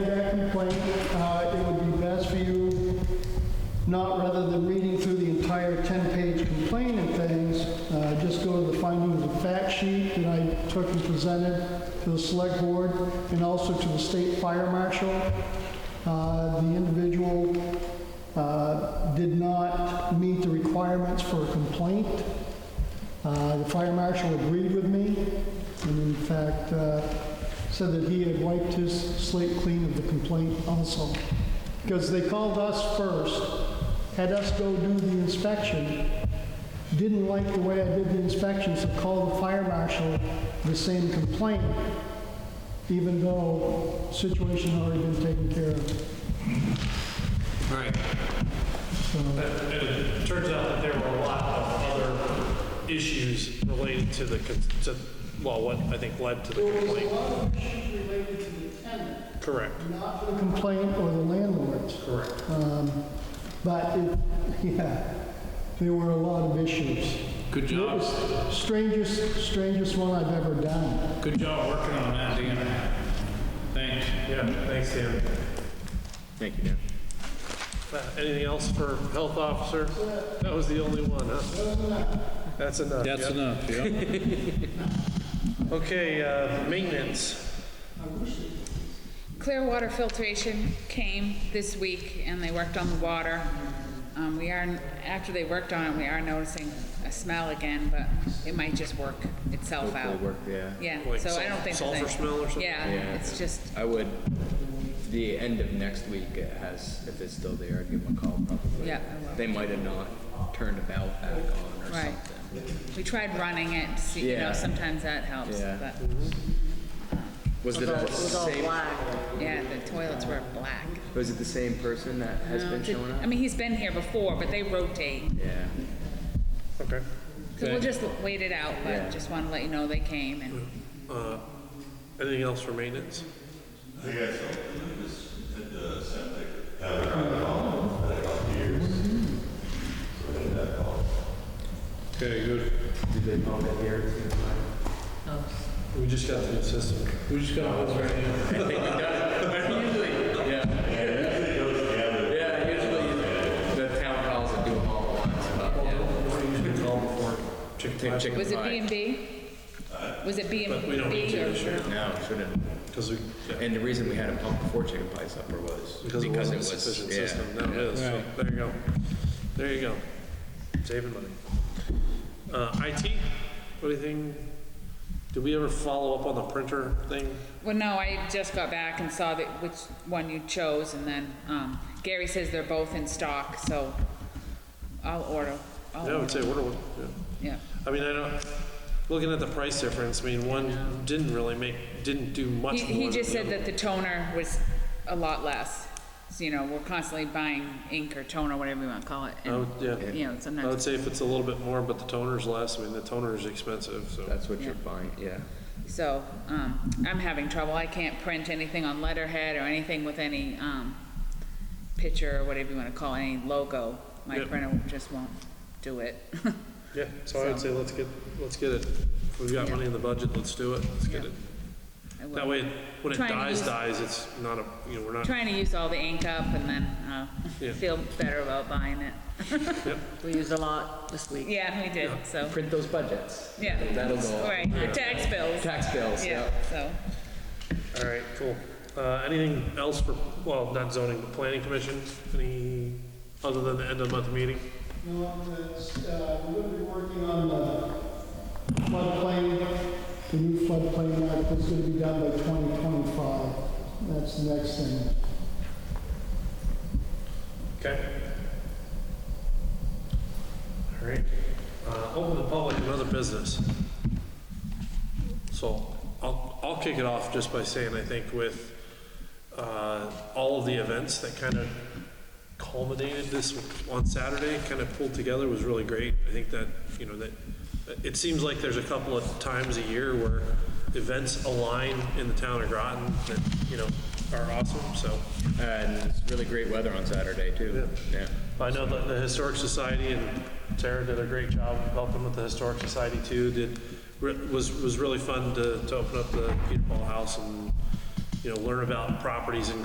complaint, uh, it would be best for you, not rather than reading through the entire 10-page complaint and things, uh, just go to the findings of fact sheet that I took and presented to the select board and also to the state fire marshal. Uh, The individual uh, did not meet the requirements for a complaint. Uh, The fire marshal agreed with me, and in fact, uh, said that he had wiped his slate clean of the complaint also. Because they called us first, had us go do the inspection, didn't like the way I did the inspection, so called the fire marshal the same complaint, even though situation had already been taken care of. Right. So, And it turns out that there were a lot of other issues related to the, con- to, well, what I think led to the complaint. lot of issues related to the tenant, Correct, not the complaint or the landlords. correct. Um, But, it- yeah, there were a lot of issues. Good It job. was strangest, strangest one I've ever done. Good job working on that, Dan. Thanks. Yeah, thanks, Dan. Thank you, Dan. Uh, Anything else for health officer? That was the only one, huh? That's enough. That's yep. enough, yeah. Okay, uh, maintenance. Clear water filtration came this week, and they worked on the water. Um, we are, after they worked on it, we are noticing a smell again, but it might just work itself out. Hopefully work, yeah. Yeah, Like so I sul- don't think. that sulfur they- smell or something? Yeah, Yeah. it's just, I would, the end of next week, it has, if it's still there, I'd give them a call probably. Yeah, I will. They might have not turned about back on or Right. something. we tried running it, to see, you know, Yeah. sometimes that helps, Yeah. but, Was it the It was all same, black. yeah, the toilets were black. was it the same person that has No, been did- showing up? I mean, he's been here before, but they rotate, Yeah, Okay. so we'll just wait it out, Yeah. but just wanna let you know they came and. Uh, Anything else for maintenance? I guess I just did the septic, have it around the home, had a couple years. So I did that call. Okay, good. did they pump it here? We just got the system. We just got one right now. Yeah, Usually it goes together. yeah, usually the town calls and do them all at once, but yeah. Chicken Take pie, chicken Was it pie. B and B? Was it B and But B? we don't need to or- this year, No, shouldn't. 'cause we, yeah, And the reason we had a pump before chicken pie supper was because it wasn't a sufficient yeah. system. Now it is, so Right. there you go. There you go. Saving money. Uh, IT, anything? Did we ever follow up on the printer thing? Well, no, I just got back and saw that which one you chose, and then um, Gary says they're both in stock, so I'll order. I'll Yeah, I would order. say order one, yeah. Yeah, I mean, I don't, looking at the price difference, I mean, one didn't really make, didn't do much he, more. he than just the said other. that the toner was a lot less. So, you know, we're constantly buying ink or toner, whatever you want to call it. I And, would, yeah. you know, I would sometimes say if it's a little bit more, but the toner's less, I mean, the toner's expensive, so. That's what you're buying, yeah. so um, I'm having trouble. I can't print anything on letterhead or anything with any um, picture or whatever you want to call it, any logo. My Yep. printer just won't do it. Yeah, so I would say let's get, let's get it. If we've got Yeah. money in the budget, let's do it, let's get Yeah. it. I will. That way, when it Trying to dies, use- dies, it's not a, you know, we're not, Trying to use all the ink up and then uh, Yeah. feel better about buying it. We used a lot this week. Yeah, we did, so, Print those budgets. yeah. That'll go. Right, the tax bills, Tax bills, yeah, yeah. so. all right, cool. Uh, anything else for, well, not zoning, but planning commission? Any, other than the end of month meeting? No, it's, uh, we're gonna be working on the floodplain, the new floodplain map that's gonna be done by 2025. That's the next thing. Okay. All right, uh, open the public and other business. So I'll, I'll kick it off just by saying, I think with, uh, all of the events that kind of culminated this on Saturday, kind of pulled together was really great. I think that, you know, that, it seems like there's a couple of times a year where events align in the town of Groton that, you know, are awesome, so. And it's really great weather on Saturday, too. Yeah. I know that the Historic Society and Tara did a great job helping with the Historic Society too, did, re- was, was really fun to, to open up the Peter Paul House and, you know, learn about properties in